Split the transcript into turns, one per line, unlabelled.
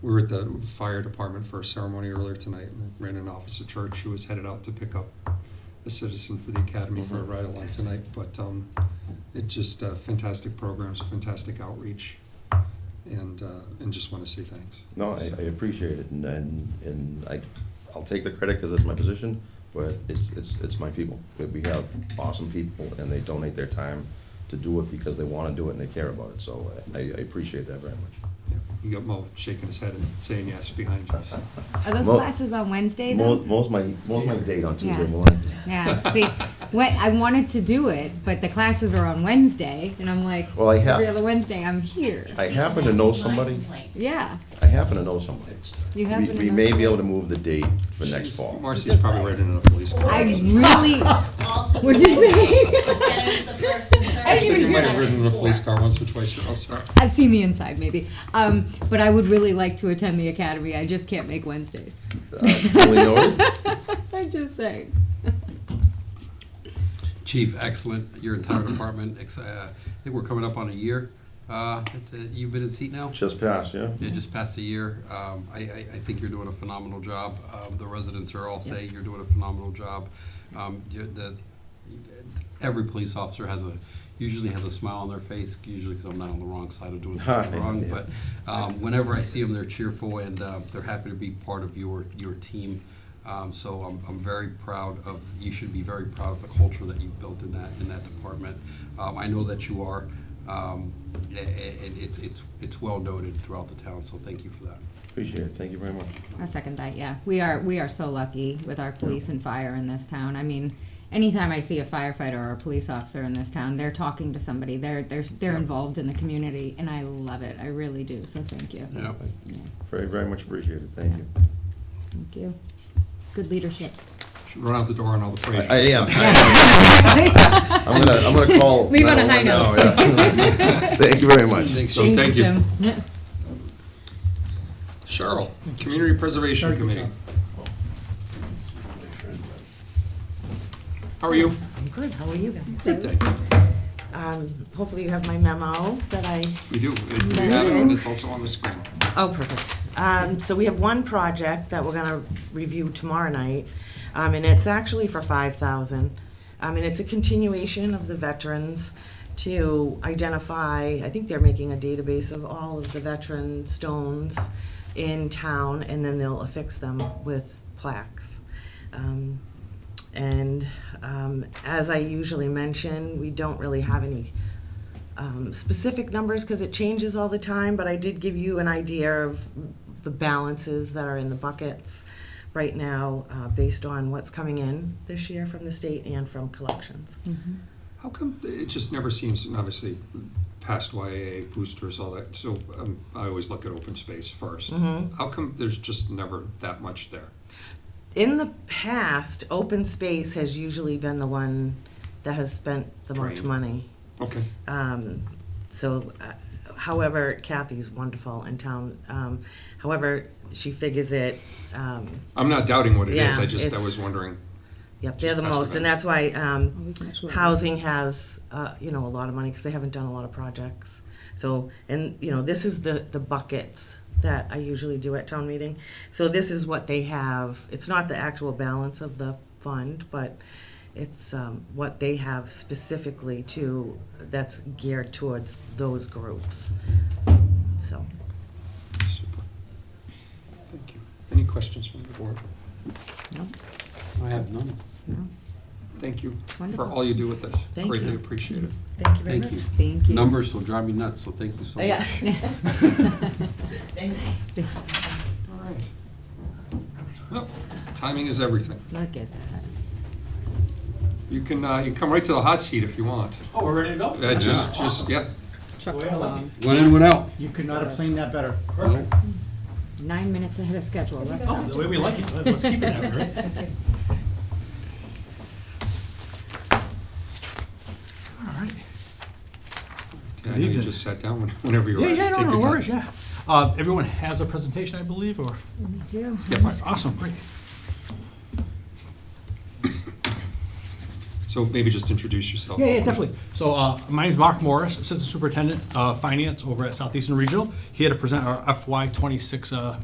we were at the fire department for a ceremony earlier tonight, and ran an officer church who was headed out to pick up a citizen for the academy for a ride along tonight. But um, it just uh, fantastic programs, fantastic outreach, and uh, and just want to say thanks.
No, I, I appreciate it, and, and, and I, I'll take the credit because it's my position, but it's, it's, it's my people. We- We have awesome people, and they donate their time to do it because they want to do it and they care about it, so I, I appreciate that very much.
Yeah, you got Mo shaking his head and saying yes behind you. so.
Are those
Mo-
classes on Wednesday though?
Most, most my, most my date on Tuesday
Yeah.
morning.
Yeah. See, when, I wanted to do it, but the classes are on Wednesday, and I'm like,
Well, I have-
every other Wednesday I'm here.
I happen to know somebody,
yeah.
I happen to know somebody.
You
We,
happen to
we
know
may be able to move the date for next
She's-
fall.
Marcy's probably writing in a police
I
car.
really. What'd you say?
I
I
think you
didn't even
might
hear
have
that.
ridden in a police car once or twice yourself.
I've seen the inside, maybe. Um, but I would really like to attend the academy. I just can't make Wednesdays.
Uh, Julie noted?
I'm just saying.
Chief, excellent, your entire department, ex- uh, I think we're coming up on a year, uh, that you've been in seat now?
Just passed, yeah?
Yeah, just past a year, um, I, I, I think you're doing a phenomenal job, um, the residents are all saying you're doing a phenomenal job. Um, you're, the, every police officer has a, usually has a smile on their face, usually because I'm not on the wrong side of doing something wrong, but, um, whenever I see them, they're cheerful and, uh, they're happy to be part of your, your team. Um, so I'm, I'm very proud of, you should be very proud of the culture that you've built in that, in that department. Um, I know that you are, um, a- a- and it's, it's, it's well noted throughout the town, so thank you for that.
Appreciate it, thank you very much.
I second that. Yeah, we are we are so lucky with our police and fire in this town. I mean, anytime I see a firefighter or a police officer in this town, they're talking to somebody. They're they're they're involved in the community, and I love it. I really do. So thank you.
Yeah.
Yeah,
Very, very much appreciated, thank you.
thank you. Good leadership.
Should run out the door on all the praise.
I am,
Thank
I'm gonna, I'm gonna call.
Leave on
911
a high note.
now, yeah. Thank you very much.
So thank you.
Tim.
Cheryl, Community Preservation Committee. How are you?
I'm good, how are you guys?
Good, thank you.
Um, hopefully you have my memo that I,
We do. It- We have it, and it's also on the screen.
oh, perfect. Um, so we have one project that we're gonna review tomorrow night, um, and it's actually for five thousand. Um, and it's a continuation of the veterans to identify, I think they're making a database of all of the veteran stones in town, and then they'll affix them with plaques. Um, and, um, as I usually mention, we don't really have any um, specific numbers because it changes all the time, but I did give you an idea of the balances that are in the buckets right now uh, based on what's coming in this year from the state and from collections.
How come it just never seems, and obviously, past YAA boosters, all that, so um, I always look at open space first.
Mm-hmm.
How come there's just never that much there?
In the past, open space has usually been the one that has spent the most
Drained.
money.
Okay,
Um, so, uh, however, Kathy's wonderful in town. Um, however, she figures it. Um,
I'm not doubting what it is,
Yeah,
I just, I
it's-
was wondering.
Yep, they're
Just
the
past
most, and
events.
that's why um,
Always much lower.
housing has, uh, you know, a lot of money because they haven't done a lot of projects. So, and, you know, this is the, the buckets that I usually do at town meeting. So this is what they have. It's not the actual balance of the fund, but it's um, what they have specifically to, that's geared towards those groups. So,
Super. Thank you. Any questions from the board?
No,
I have none.
no.
Thank you for
Wonderful.
all you do with this.
Thank
Greatly
you.
appreciate it.
thank you very much.
Thank you.
Thank you.
Numbers will drive me nuts, so thank you so
Yeah.
much.
Thanks.
All right. Well, timing is everything.
Look at that.
You can, uh, you can come right to the hot seat if you want.
Oh, we're ready to go?
Uh, just, just, yeah.
Truck
Well,
along.
One in, one out.
You could not have planned that better.
Perfect.
Nine minutes ahead of schedule. That's
Oh, the way we like it, let's keep it that way, right? All right.
Yeah, I know you
evening.
just sat down when- whenever you were
Yeah,
ready.
yeah,
Take
no, no
your time.
worries, yeah. Uh, everyone has a presentation, I believe, or?
we do.
Yeah,
Awesome, great.
So maybe just introduce yourself.
Yeah, yeah, definitely. So uh, my name's Mark Morris, Assistant Superintendent of Finance over at Southeastern Regional, here to present our FY twenty-six uh,